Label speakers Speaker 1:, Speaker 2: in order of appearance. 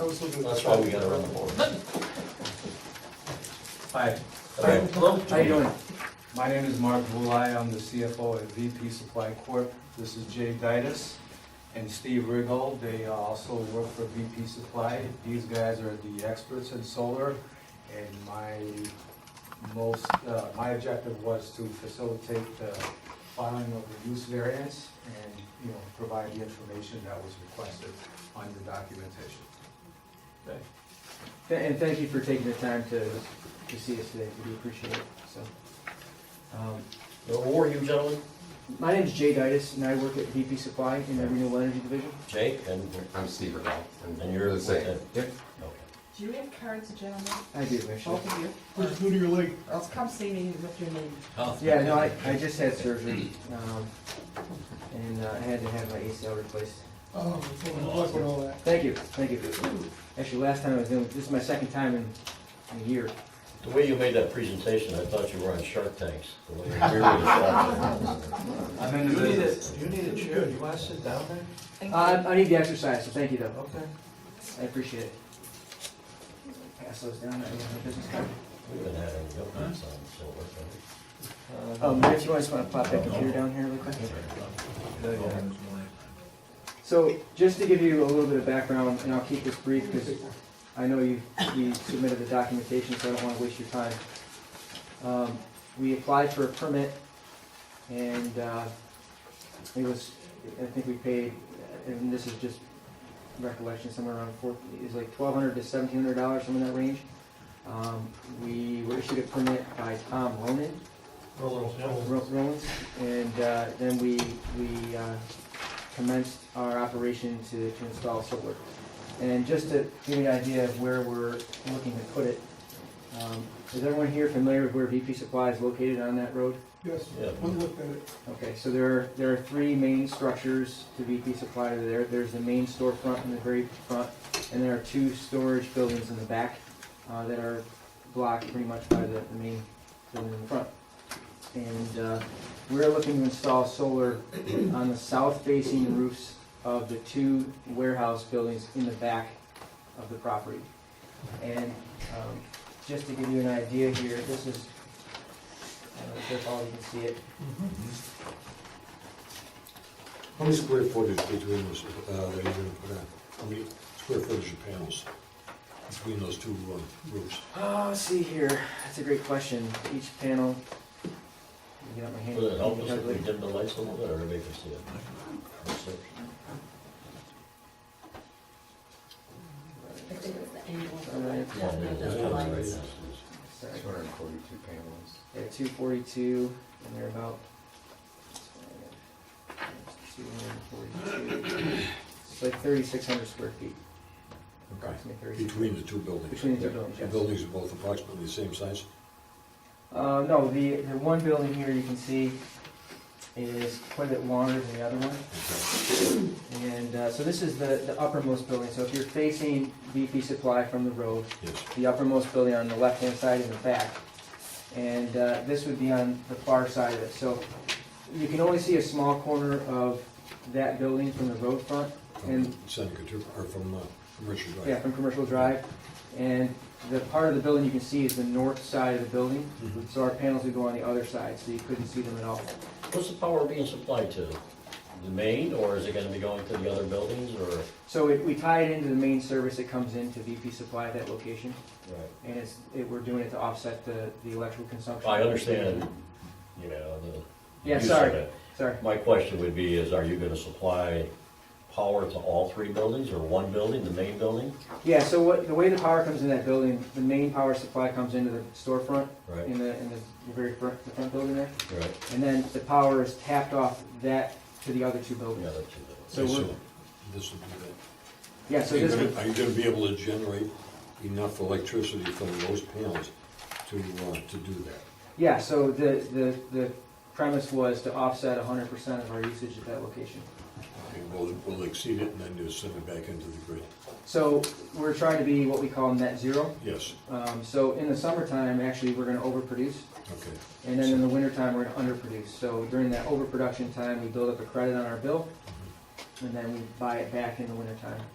Speaker 1: I was looking.
Speaker 2: That's why we gotta run the board.
Speaker 3: Hi,
Speaker 2: Okay.
Speaker 3: how you doing? My name is Mark Vulai, I'm the CFO at VP Supply Corp. This is Jay Ditas and Steve Riggle, they uh, also work for VP Supply. These guys are the experts in solar, and my most, uh, my objective was to facilitate the filing of the use variance and, you know, provide the information that was requested on your documentation.
Speaker 4: Th- And thank you for taking the time to, to see us today, we do appreciate it, so. Um,
Speaker 2: Who are you gentlemen?
Speaker 4: My name's Jay Ditas, and I work at VP Supply in the Renewable Energy Division.
Speaker 2: Jake and,
Speaker 5: I'm Steve Riddell.
Speaker 2: and you're the same.
Speaker 5: Yep.
Speaker 2: Okay.
Speaker 6: Do you have cards, gentlemen?
Speaker 4: I do, actually.
Speaker 6: Both of you?
Speaker 1: Who's who do you like?
Speaker 6: Or else come see me with your name.
Speaker 4: Yeah, no, I, I just had surgery, um, and uh, I had to have my ACL replaced.
Speaker 1: Oh, fucking luck with all that.
Speaker 4: Thank you, thank you. Actually, last time I was doing, this is my second time in, in a year.
Speaker 2: The way you made that presentation, I thought you were on Shark Tanks. The way you really shot it.
Speaker 3: I'm in the business.
Speaker 1: You need a chair, you wanna sit down there?
Speaker 6: Thank
Speaker 4: Uh,
Speaker 6: you.
Speaker 4: I need the exercise, so thank you though,
Speaker 1: Okay.
Speaker 4: I appreciate it. Pass those down, I don't have a business card.
Speaker 2: We've been having yogurts on, so we're
Speaker 4: Um, Rich, you want to plop that computer down here real quick? So, just to give you a little bit of background, and I'll keep this brief because I know you, you submitted the documentation, so I don't want to waste your time. Um, We applied for a permit and, uh, it was, I think we paid, and this is just recollection, somewhere around four, it was like twelve hundred to seventeen hundred dollars, somewhere in that range. Um, We were issued a permit by Tom Ronan,
Speaker 1: For a little.
Speaker 4: Ro- Rollins, and uh, then we, we uh, commenced our operation to, to install solar. And just to give you an idea of where we're looking to put it, um, is everyone here familiar with where VP Supply is located on that road?
Speaker 1: Yes,
Speaker 2: Yeah.
Speaker 1: we looked at it.
Speaker 4: Okay, so there are, there are three main structures to VP Supply there. There's the main storefront in the very front, and there are two storage buildings in the back uh, that are blocked pretty much by the, the main building in the front. And uh, we're looking to install solar on the south facing roofs of the two warehouse buildings in the back of the property. And um, just to give you an idea here, this is, I don't know if all you can see it,
Speaker 7: How many square footage between those, uh, that you're gonna put on? How many square footage of panels between those two uh, roofs?
Speaker 4: Oh, let's see here. That's a great question. Each panel. Let me Get out my hand.
Speaker 2: Would it help us if we dim the lights a little bit, or everybody can see it?
Speaker 6: I think it's the
Speaker 4: Alright.
Speaker 6: angle. of the lights.
Speaker 4: Sorry.
Speaker 5: Two hundred and forty-two panels.
Speaker 4: They're two forty-two and they're about. Two hundred and forty-two. It's like thirty-six hundred square feet. Approximately thirty-six.
Speaker 7: Between the two buildings?
Speaker 4: Between the two buildings,
Speaker 7: The
Speaker 4: yes.
Speaker 7: buildings are both approximately the same size?
Speaker 4: Uh, no, the, the one building here you can see is quite a bit longer than the other one. And, uh, so this is the, the uppermost building. So if you're facing VP Supply from the road,
Speaker 7: Yes.
Speaker 4: the uppermost building on the left-hand side in the back. And uh, this would be on the far side of it. So you can only see a small corner of that building from the road front and,
Speaker 7: From Seneca to, or from, uh, from Richard Drive?
Speaker 4: yeah, from Commercial Drive. And the part of the building you can see is the north side of the building.
Speaker 7: Mhm.
Speaker 4: So our panels would go on the other side, so you couldn't see them at all.
Speaker 2: What's the power being supplied to? The main, or is it gonna be going to the other buildings, or?
Speaker 4: So it- we tie it into the main service that comes into VP Supply at that location.
Speaker 2: Right.
Speaker 4: And it's, it- we're doing it to offset the, the electrical consumption.
Speaker 2: I understand, you know, the.
Speaker 4: Yeah,
Speaker 2: use of
Speaker 4: sorry.
Speaker 2: it.
Speaker 4: Sorry.
Speaker 2: My question would be is, are you gonna supply power to all three buildings or one building, the main building?
Speaker 4: Yeah, so what, the way the power comes in that building, the main power supply comes into the storefront
Speaker 2: Right,
Speaker 4: in the, in the very front, the front building there.
Speaker 2: right,
Speaker 4: And then the power is tapped off that to the other two
Speaker 2: the
Speaker 4: buildings.
Speaker 2: other two buildings.
Speaker 4: So we're,
Speaker 7: So This will be that.
Speaker 4: yeah, so
Speaker 7: Are you
Speaker 4: this,
Speaker 7: gonna-
Speaker 4: would-
Speaker 7: Are you gonna be able to generate enough electricity from those panels to, uh, to do that?
Speaker 4: yeah, so the, the, the premise was to offset hundred percent of our usage at that location.
Speaker 7: Okay, Will, will exceed it and then just send it back into the grid?
Speaker 4: So we're trying to be what we call net zero.
Speaker 7: Yes,
Speaker 4: Um, so in the summertime, actually, we're gonna overproduce.
Speaker 7: okay.
Speaker 4: And then in the wintertime, we're gonna underproduce. So during that overproduction time, we build up a credit on our bill, and then we buy it back in the wintertime.